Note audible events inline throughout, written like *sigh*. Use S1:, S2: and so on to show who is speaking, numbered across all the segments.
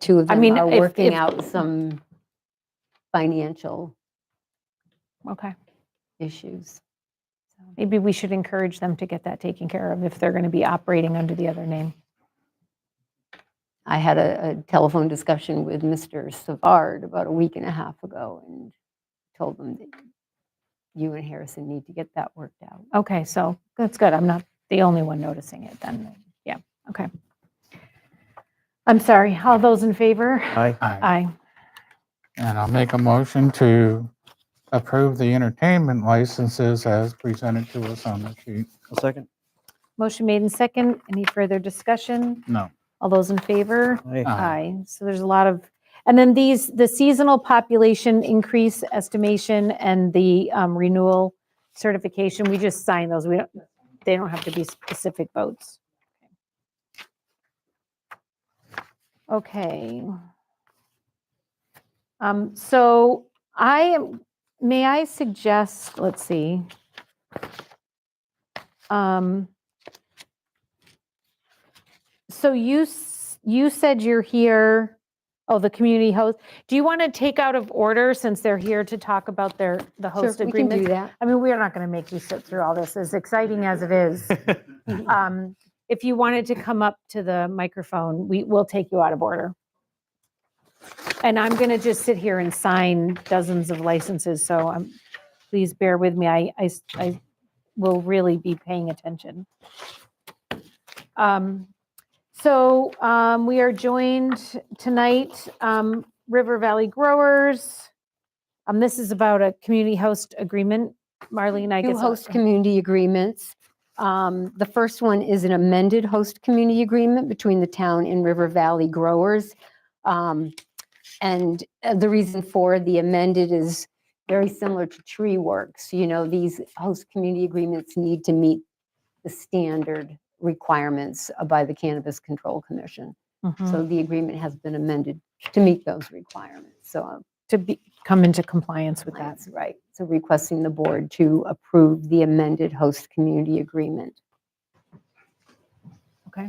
S1: two of
S2: I
S1: them
S2: mean,
S1: are
S2: if-
S1: working
S2: if-
S1: out some financial
S2: Okay.
S1: issues.
S2: Maybe we should encourage them to get that taken care of if they're going to be operating under the other name.
S1: I had a, a telephone discussion with Mr. Savard about a week and a half ago and told them that you and Harrison need to get that worked out.
S2: Okay, so that's good. I'm not the only one noticing it then. Yeah, okay. I'm sorry. All those in favor?
S3: Aye.
S4: Aye.
S2: Aye.
S4: And I'll make a motion to approve the entertainment licenses as presented to us on the sheet.
S3: I'll second.
S2: Motion made in second. Any further discussion?
S4: No.
S2: All those in favor?
S3: Aye.
S4: Aye.
S2: Aye. So there's a lot of, and then these, the seasonal population increase estimation and the um, renewal certification, we just sign those. We don't, they don't have to be specific votes. Okay. Um, so I am, may I suggest, let's see. Um, so you, s- you said you're here, oh, the community host. Do you want to take out of order since they're here to talk about their, the
S1: Sure,
S2: host
S1: we can
S2: agreement?
S1: do that.
S2: I mean, we are not going to make you sit through all this, as exciting as it is. Um, If you wanted to come up to the microphone, we will take you out of order. And I'm going to just sit here and sign dozens of licenses, so um, please bear with me. I, I s- I will really be paying attention. Um, So um, we are joined tonight, um, River Valley Growers. Um, This is about a community host agreement. Marlene, I guess.
S1: Two
S2: I'll-
S1: host community agreements. Um, The first one is an amended host community agreement between the town and River Valley growers. Um, And uh, the reason for the amended is very similar to Tree Works. You know, these host community agreements need to meet the standard requirements uh, by the Cannabis Control Commission.
S2: Mhm.
S1: So the agreement has been amended to meet those requirements. So uh,
S2: to be, come into compliance with that.
S1: that's right. So requesting the board to approve the amended host community agreement.
S2: Okay.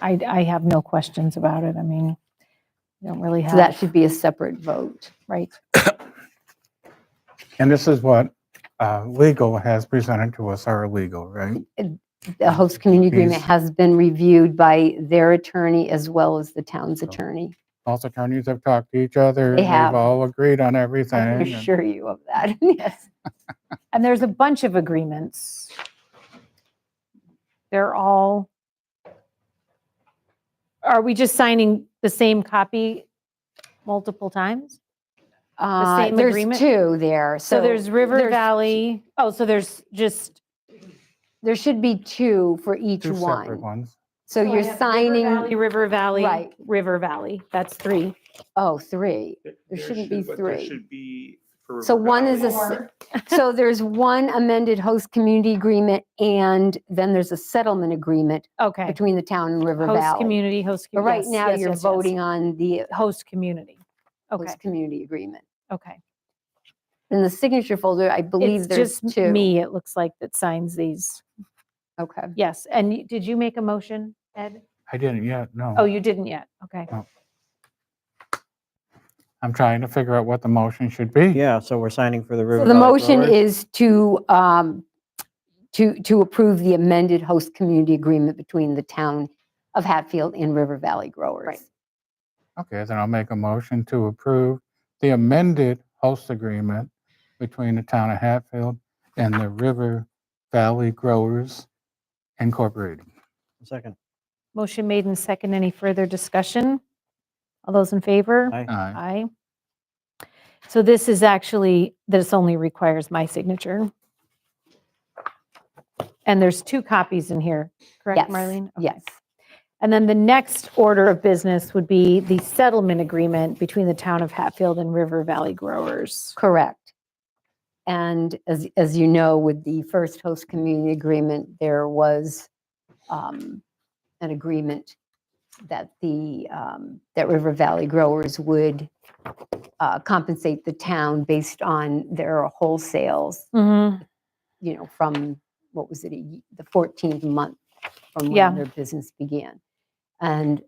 S2: I, I have no questions about it. I mean, I don't really
S1: So that
S2: have,
S1: should be a separate vote.
S2: right?
S4: And this is what uh, legal has presented to us, our legal, right?
S1: The host community agreement
S4: Yes.
S1: has been reviewed by their attorney as well as the
S4: Oh,
S1: town's attorney.
S4: Both attorneys have talked to each other.
S1: They have.
S4: We've all agreed on
S1: I can
S4: everything. and-
S1: assure you of
S2: *laughs*
S1: that, yes.
S2: And there's a bunch of agreements. They're all, are we just signing the same copy multiple times?
S1: Uh,
S2: same
S1: There's
S2: agreement?
S1: two there, so.
S2: So there's River
S1: there's-
S2: Valley, oh, so there's just,
S1: There should be two for each
S4: Two separate
S1: one.
S4: ones.
S1: So
S2: I
S1: you're
S2: have River
S1: signing,
S2: River Valley,
S1: Right.
S2: River Valley, that's three.
S1: oh, three. There shouldn't be
S5: but there
S1: three.
S5: should be for
S1: So
S5: River
S1: one is a,
S5: Valley.
S1: se-
S5: *laughs*
S1: so there's one amended host community agreement and then there's a settlement agreement
S2: Okay.
S1: between the town and River
S2: Host
S1: Valley.
S2: community, host.
S1: But
S2: commu-
S1: right
S2: yes,
S1: now,
S2: yes,
S1: you're
S2: yes, yes.
S1: voting on the
S2: Host community. Okay,
S1: host community agreement.
S2: okay.
S1: In the signature folder, I believe
S2: It's
S1: there's
S2: just
S1: two.
S2: me, it looks like, that signs these.
S1: Okay.
S2: Yes, and you- did you make a motion, Ed?
S4: I didn't yet, no.
S2: Oh, you didn't yet, okay.
S4: I'm trying to figure out what the motion should be.
S3: Yeah, so we're signing for the River
S1: So the
S3: Valley
S1: motion
S3: Growers.
S1: is to, um, to, to approve the amended host community agreement between the town of Hatfield and River Valley growers.
S2: Right.
S4: Okay, then I'll make a motion to approve the amended host agreement between the town of Hatfield and the River Valley Growers Incorporated.
S3: Second.
S2: Motion made and second, any further discussion? All those in favor?
S3: Aye.
S4: Aye.
S2: Aye. So this is actually, this only requires my signature. And there's two copies in here,
S1: Yes.
S2: correct, Marlene? Okay.
S1: Yes.
S2: And then the next order of business would be the settlement agreement between the town of Hatfield and River Valley Growers.
S1: Correct. And as, as you know, with the first host community agreement, there was um, an agreement that the, um, that River Valley growers would uh, compensate the town based on their wholesales,
S2: Mm-hmm.
S1: you know, from, what was it, a ye- the 14th month from
S2: Yeah.
S1: when their business began. And